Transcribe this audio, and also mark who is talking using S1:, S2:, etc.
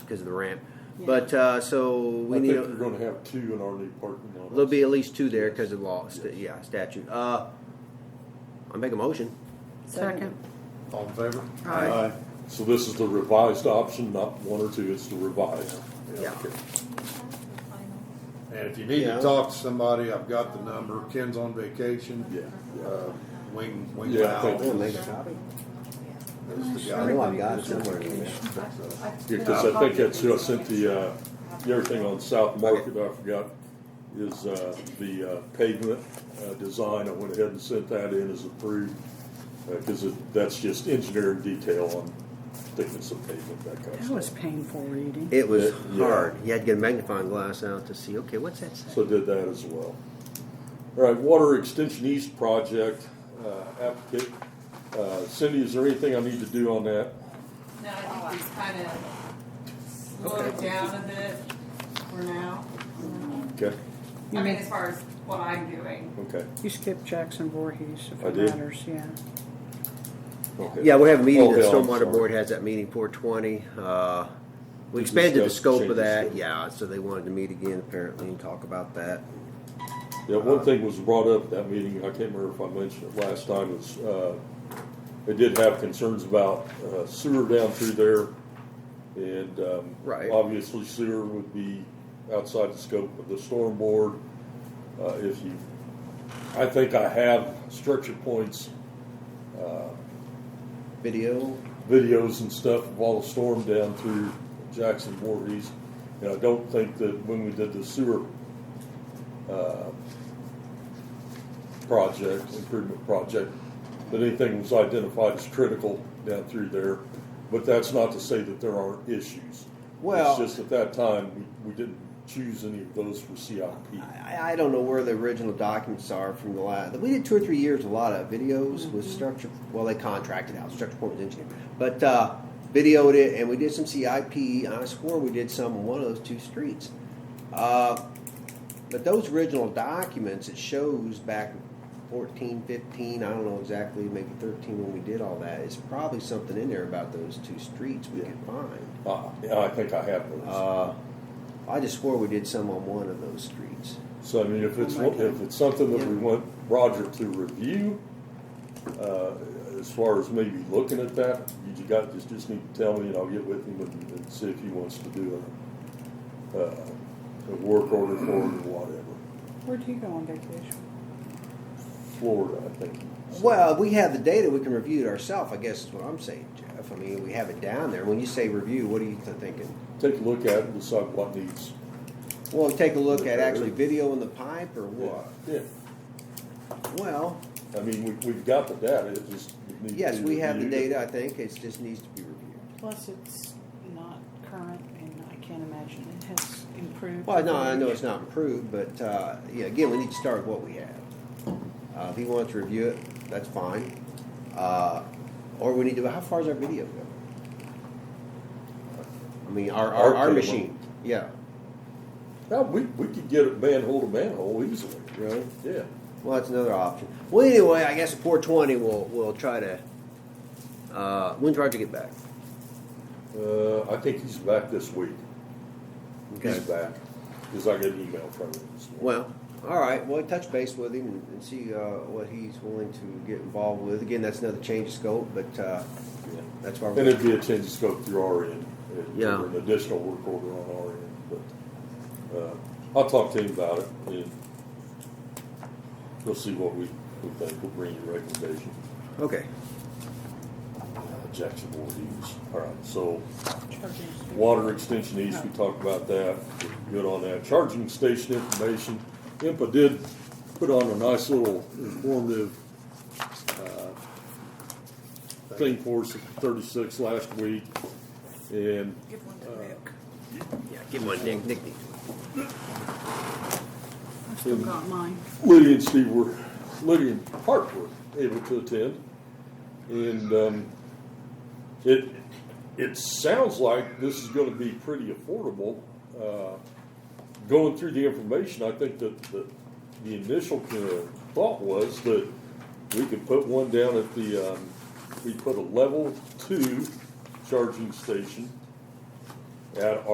S1: because of the ramp.
S2: Yeah.
S1: But uh, so we
S3: I
S1: need.
S3: think
S1: a-
S3: you're going to have two in our new parking lot.
S1: There'll be at least two there because of law, st- yeah, statute. Uh, I make a motion.
S2: Second.
S4: All in favor?
S2: Aye.
S3: So this is the revised option, not one or two. It's the revised.
S1: Yeah.
S3: Okay.
S4: And if you need
S1: Yeah.
S4: to talk to somebody, I've got the number. Ken's on vacation.
S3: Yeah. yeah.
S4: Uh, Wing, Wing
S3: Yeah, I
S4: Powell.
S3: think-
S5: make a copy.
S4: That's the
S5: I
S4: guy.
S5: know I've got it somewhere in there.
S3: Because I think that's who I sent the, uh, the other thing on South Market I forgot is, uh, the uh, pavement, uh, design. I went ahead and sent that in as approved. Uh 'cause cause it, that's just engineering detail on thickness of pavement, that
S1: Oh,
S3: kind of
S2: That
S3: stuff.
S2: was painful reading.
S1: It was
S3: Yeah, yeah.
S1: hard. You had to get a magnifying glass out to see. Okay, what's that? Say?
S3: So did that as well. All right, Water Extension East project, uh, applicant. Uh, Cindy, is there anything I need to do on that?
S6: No, I think he's kind of slowed down a bit for now.
S3: Okay,
S2: You
S6: I mean,
S2: mean-
S6: as far as what I'm doing.
S3: okay,
S2: You skipped Jackson Voorhees, if
S3: I
S2: it
S3: did.
S2: matters, yeah.
S3: okay.
S1: Yeah, we have a meeting.
S3: Oh,
S1: The
S3: yeah, I'm
S1: Stormwater
S3: sorry.
S1: Board has that meeting 420. Uh, we
S3: To
S1: expanded the
S3: discuss
S1: scope
S3: changes
S1: of that.
S3: to-
S1: Yeah, so they wanted to meet again apparently and talk about that.
S3: Yeah, one thing was brought up at that meeting, I can't remember if I mentioned it last time, was, uh, they did have concerns about uh, sewer down through there. And, um,
S1: Right.
S3: obviously sewer would be outside the scope of the storm board. Uh, if you, I think I have structure points,
S1: Video.
S3: videos and stuff of all the storm down through Jackson Voorhees. And I don't think that when we did the sewer, uh, project, improvement project, that anything was identified as critical down through there. But that's not to say that there aren't issues.
S1: Well-
S3: It's just at that time, we, we didn't choose any of those for CIP.
S1: I, I don't know where the original documents are from the last. We did two or three years, a lot of videos with structure. Well, they contracted out structure point was engineer, but uh, videoed it, and we did some CIP. And I swore we did some on one of those two streets. Uh, but those original documents, it shows back 14, 15, I don't know exactly, maybe 13 when we did all that. It's probably something in there about those two streets we
S3: Yeah.
S1: could find.
S3: Uh, yeah, I think I have those.
S1: Uh, I just swore we did some on one of those streets.
S3: So I mean, if it's,
S2: Oh, my
S3: if it's something that we
S1: Yeah.
S3: want Roger to review, uh, as far as maybe looking at that, you ju- got, just, just need to tell me and I'll get with him and, and see if he wants to do a, uh, a work order for it or whatever.
S2: Where'd he go on vacation?
S3: Florida, I think. So-
S1: Well, we have the data, we can review it ourselves, I guess is what I'm saying, Jeff. I mean, we have it down there. When you say review, what are you th- thinking?
S3: Take a look at it and decide what needs.
S1: Well, take a look at actually video in the pipe or what?
S3: Yeah,
S1: Well,
S3: I mean, we, we've got the data, it just. it needs to
S1: yes,
S3: be
S1: we have the
S3: reviewed.
S1: data, I think. It just needs to be reviewed.
S2: Plus, it's not current, and I can't imagine it has improved.
S1: Well, no, I know it's not improved, but, uh, yeah, again, we need to start with what we have. Uh, if he wants to review it, that's fine. Uh, or we need to, how far is our video go? I mean, our, our,
S3: Our
S1: our
S3: cable.
S1: machine, yeah,
S3: Now, we, we could get it manhole to manhole easily,
S1: really?
S3: yeah.
S1: Well, that's another option. Well, anyway, I guess at 420, we'll, we'll try to, uh, when's Roger get back?
S3: Uh, I think he's back this week. He's
S1: Okay.
S3: back, because I got an email from him. this morning.
S1: Well, all right, well, touch base with him and- and see, uh, what he's willing to get involved with. Again, that's another change of scope, but, uh,
S3: Yeah.
S1: that's why
S3: And
S1: we're,
S3: it'd be a change of scope through our end, and-
S1: Yeah.
S3: or an additional work order on our end, but, uh, I'll talk to him about it, and we'll see what we, we think, we'll bring you a recommendation.
S1: okay.
S3: Uh, Jackson Voorhees, all right, so,
S2: Charging station.
S3: Water extension east, we talked about that, good on that. Charging station information, IMPA did put on a nice little informative uh, thing for us at thirty-six last week. And
S6: Give one to Nick.
S1: Yeah, give one, Nick, Nick needs one.
S2: I still got mine.
S3: Lydia and Steve were, Lydia and Hart were able to attend. And um, it, it sounds like this is going to be pretty affordable. Uh, going through the information, I think that the, the initial kind of thought was that we could put one down at the, um, we put a level two charging station at